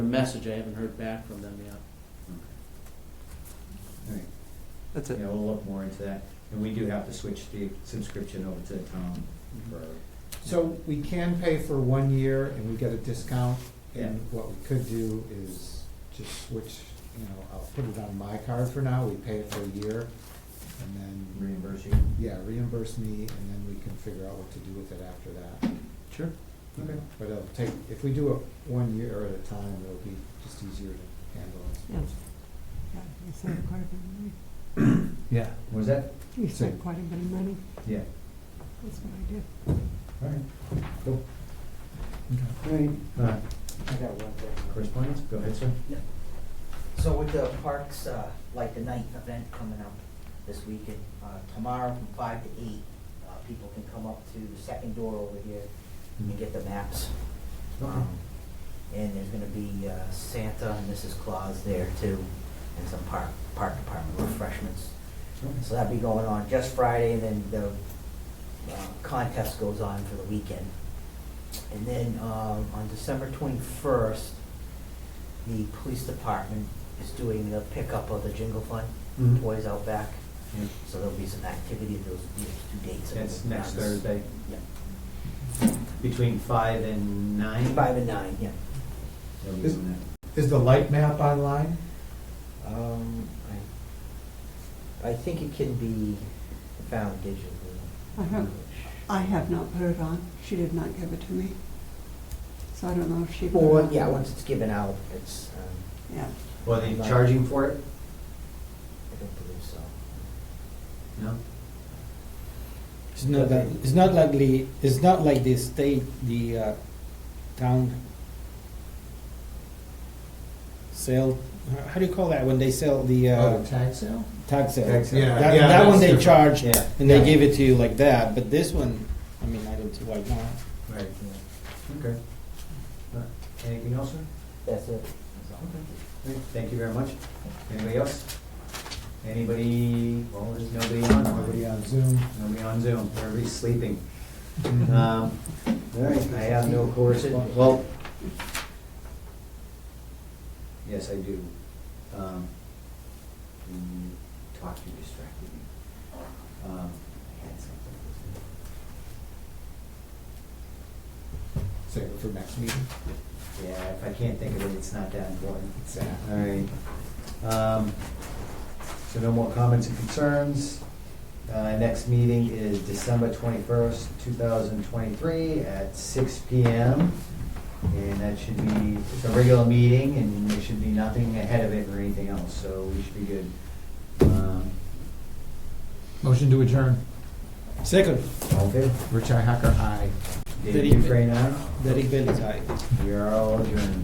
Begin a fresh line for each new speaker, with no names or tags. A message, I haven't heard back from them yet.
All right,
That's
yeah,
it.
we'll look more into that, and we do have to switch the subscription over to the town for,
So we can pay for one year and we get a discount, and what we could do is just switch, you know, I'll put it on my card for now, we pay it for a year, and then,
reimburse you.
yeah, reimburse me, and then we can figure out what to do with it after that.
Sure.
you know.
Okay.
But it'll take, if we do it one year at a time, it'll be just easier to handle, I
Yeah.
suppose.
Yeah, we saved quite a bit of money.
Yeah.
What Was that?
We
So-
saved quite a bit of money,
Yeah,
that's what I did.
all right, cool. All right, uh,
I got one thing.
correspondence, go ahead, sir.
So with the parks, uh, like the ninth event coming up this weekend, uh, tomorrow from five to eight, uh, people can come up to the second door over here and get the maps. Um, And there's gonna be uh, Santa and Mrs. Claus there too, and some park, park department refreshments. So that'll be going on just Friday, and then the uh, contest goes on for the weekend. And then um, on December twenty-first, the police department is doing the pickup of the jingle fund,
Mhm.
toys out back.
Yeah,
So there'll be some activity, those, those two dates.
That's next Thursday,
Yeah,
between five and nine.
five and nine, yeah.
They'll be doing
Is the light map online?
Um, I, I think it can be found digitally.
I have, I have not put it on, she did not give it to me. So I don't know if she. put it
Or,
on.
yeah, once it's given out, it's, um,
Yeah,
that. Well, they charging for it?
I don't believe so.
No?
It's not that, it's not like the, it's not like the state, the uh, town sale, how do you call that, when they sell the
Oh,
uh,
the tag sale?
tag sale?
Tag sale. Yeah,
That,
yeah,
that one
that's
they
different.
charge,
Yeah.
and they give it to you like that, but this one, I mean, I don't see why not.
Right, okay. Uh, Anything else, sir?
That's it.
Okay. Thank you very much. Anybody else? Anybody, well, there's nobody on,
Nobody on Zoom?
nobody on Zoom, everybody's sleeping. Um, All right, I have no correspondence, well, yes, I do. Um, when you Talk, you distracted me. Um, I had something.
Save it for next meeting?
Yeah, if I can't think of it, it's not that important.
Exactly.
All right. Um, So no more comments and concerns. Uh, Next meeting is December twenty-first, two thousand twenty-three at six P M. And that should be, it's a regular meeting and there should be nothing ahead of it or anything else, so we should be good. Um,
Motion to adjourn.
Second,
All in favor?
Richi Hacker, aye.
David Dufresne, aye.
Derek Bailey's aye.
We are all adjourned.